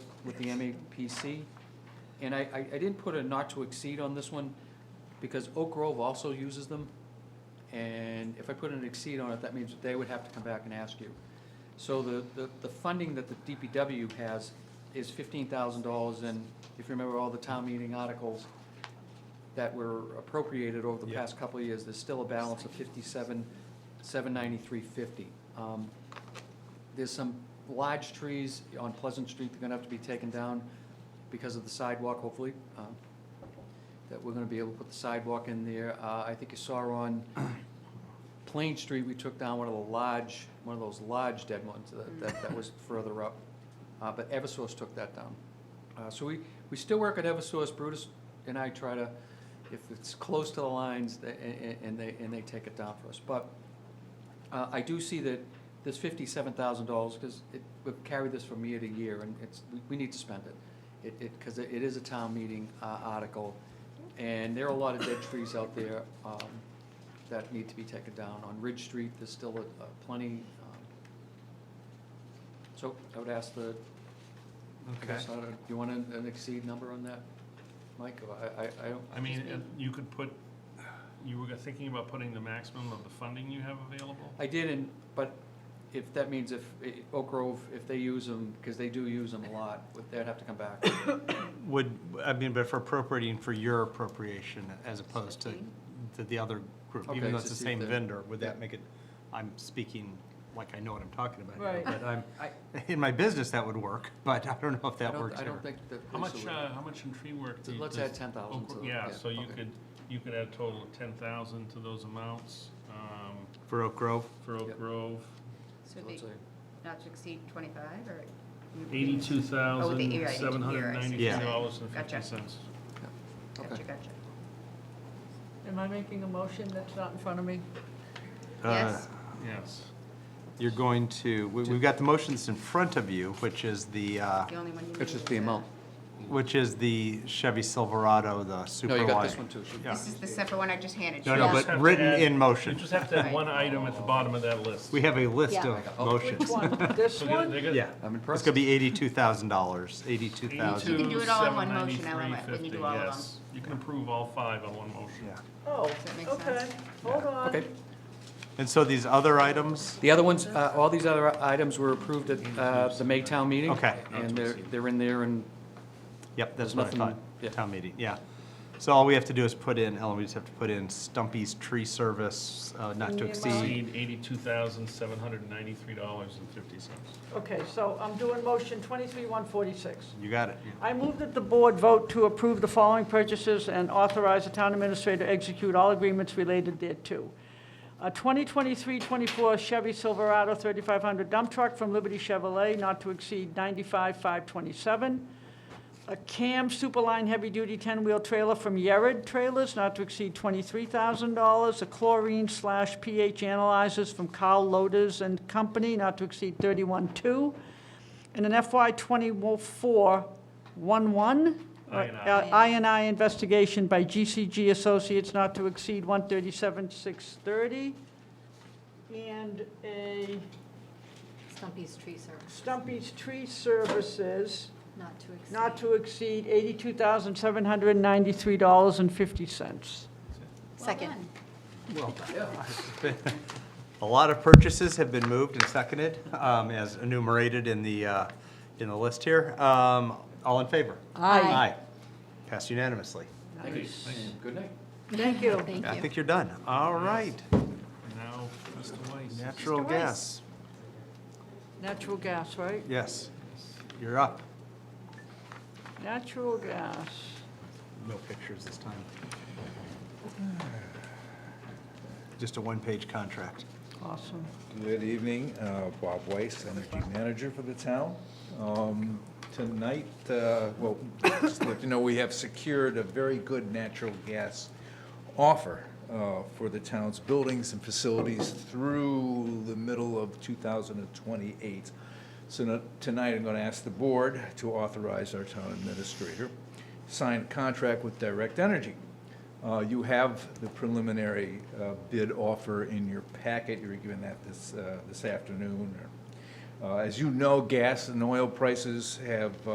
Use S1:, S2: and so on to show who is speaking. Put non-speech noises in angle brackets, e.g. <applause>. S1: with the MAPC. And I, I I didn't put a not to exceed on this one, because Oak Grove also uses them. And if I put an exceed on it, that means that they would have to come back and ask you. So the, the, the funding that the DPW has is fifteen thousand dollars, and if you remember all the town meeting articles that were appropriated over the
S2: Yeah.
S1: past couple of years, there's still a balance of fifty-seven, seven ninety-three fifty. Um, There's some large trees on Pleasant Street that are gonna have to be taken down because of the sidewalk, hopefully. um, That we're gonna be able to put the sidewalk in there. Uh, I think you saw on Plain Street, we took down one of the large, one of those large dead ones that, that- that was further up. Uh, but Eversource took that down. Uh, so we, we still work at Eversource. Brutus and I try to, if it's close to the lines, they- and, and they, and they take it down for us. But, uh, I do see that this fifty-seven thousand dollars, because it, we've carried this from year to year, and it's, we, we need to spend it. It, it, because it is a town meeting, uh, article, and there are a lot of dead trees out there, um, that need to be taken down. On Ridge Street, there's still a- a plenty, um, so I would ask the, I
S2: Okay.
S1: guess, I don't- do you want an an exceed number on that, Mike? Or I, I, I don't,
S2: I mean, uh, you could put, you were thinking about putting the maximum of the funding you have available?
S1: I did, and, but if, that means if eh, Oak Grove, if they use them, because they do use them a lot, would- they'd have to come back.
S3: Would, I mean, but for appropriating for your appropriation as opposed to, to the other group,
S1: Okay,
S3: even though it's
S1: so
S3: the
S1: see
S3: same
S1: the-
S3: vendor, would
S1: yeah.
S3: that make it, I'm speaking like I know what I'm talking about. now,
S4: Right.
S3: But I'm,
S1: <laughs> I-
S3: in my business, that would work, <laughs> but I don't know if
S1: I
S3: that
S1: don't,
S3: works
S1: I
S3: here.
S1: don't think that.
S2: How
S1: this
S2: much,
S1: would-
S2: uh, how much in tree work?
S1: So
S2: do-
S1: let's
S2: does
S1: add 10,000 to
S2: Oak-
S1: the-
S2: Yeah,
S1: yeah,
S2: so you
S1: okay.
S2: could, you could add a total of ten thousand to those amounts, um,
S3: For Oak Grove,
S2: for Oak
S1: Yep.
S2: Grove.
S4: So
S1: so
S4: it'd be
S1: let's say-
S4: not to exceed twenty-five or?
S2: Eighty-two
S4: Oh,
S2: thousand, seven hundred and ninety-three dollars and
S4: Gotcha.
S2: fifty cents.
S4: Gotcha,
S1: Okay.
S4: gotcha.
S5: Am I making a motion that's not in front of me?
S3: uh,
S4: Yes.
S2: Yes.
S3: you're going to, we, we've got the motions in front of you, which is the, uh,
S4: The only one you need.
S1: It's just
S4: is
S1: the amount.
S3: which is the Chevy Silverado, the super
S1: No,
S3: line.
S1: you got this one too.
S3: Yeah.
S4: This is the separate one I just handed you.
S3: No, no,
S2: You
S3: but
S2: just have to
S3: written
S2: add-
S3: in motion.
S2: You just have to add
S4: Right.
S2: one item at the bottom of that list.
S3: We have a list
S5: Yeah.
S3: of
S1: Oh. Which
S3: motions.
S5: One, this
S2: So they're-
S5: one?
S2: they're gonna-
S3: Yeah.
S1: I'm
S3: It's
S1: impressed.
S3: gonna be eighty-two thousand dollars, eighty-two
S4: You
S3: thousand.
S4: can do it all in one motion, I love it, when you do all of
S2: 82,793.50, yes. You can approve all five on one motion.
S3: Yeah.
S5: Oh,
S4: that make
S5: okay,
S4: sense?
S5: hold on.
S1: Okay.
S3: And so these other items,
S1: The other ones, uh, all these other items were approved at uh, the Maytown meeting.
S3: Okay.
S1: And they're, they're in there and
S3: yep,
S1: There's
S3: that's what I
S1: nothing- yeah.
S3: thought, town meeting, yeah. So all we have to do is put in, Ellen, we just have to put in Stumpy's Tree Service, uh, not to
S5: Minimum.
S3: exceed.
S2: exceed eighty-two thousand, seven hundred and ninety-three dollars and fifty cents.
S5: Okay, so I'm doing motion 23-146.
S3: You got it.
S5: I move that the board vote to approve the following purchases and authorize the town administrator to execute all agreements related thereto. A 2023-24 Chevy Silverado 3500 dump truck from Liberty Chevrolet, not to exceed 95,527. A CAM Superline Heavy Duty 10-wheel trailer from Yared Trailers, not to exceed $23,000. A chlorine slash pH analyzers from Carl Loaders and Company, not to exceed 31,200. And an FY 24 one uh,
S2: INI.
S5: INI investigation by GCG Associates, not to exceed 137,630. And a
S4: Stumpy's tree service,
S5: Stumpy's Tree Services,
S4: not to exceed.
S5: not to exceed eighty-two thousand, seven hundred and ninety-three dollars and fifty cents.
S4: Second.
S3: <laughs> A lot of purchases have been moved and seconded, um, as enumerated in the, uh, in the list here. Um, all in favor?
S4: Aye.
S3: Aye. Passed unanimously.
S1: Thanks. And Good night.
S5: Thank you.
S3: I think you're done. All right,
S2: Now, Mr. Weiss.
S3: natural
S4: Mr. Weiss.
S3: gas,
S5: Natural gas, right?
S3: yes, you're up.
S5: Natural gas.
S3: No pictures this time. <sighs> Just a one-page contract.
S5: Awesome.
S6: Good evening, uh, Bob Weiss, Energy Manager for the town. Um, Tonight, uh, well, just to let you know, we have secured a very good natural gas offer uh, for the town's buildings and facilities through the middle of 2028. So no- tonight, I'm going to ask the board to authorize our town administrator sign a contract with Direct Energy. Uh, You have the preliminary uh, bid offer in your packet. You were given that this, uh, this afternoon. Uh, As you know, gas and oil prices have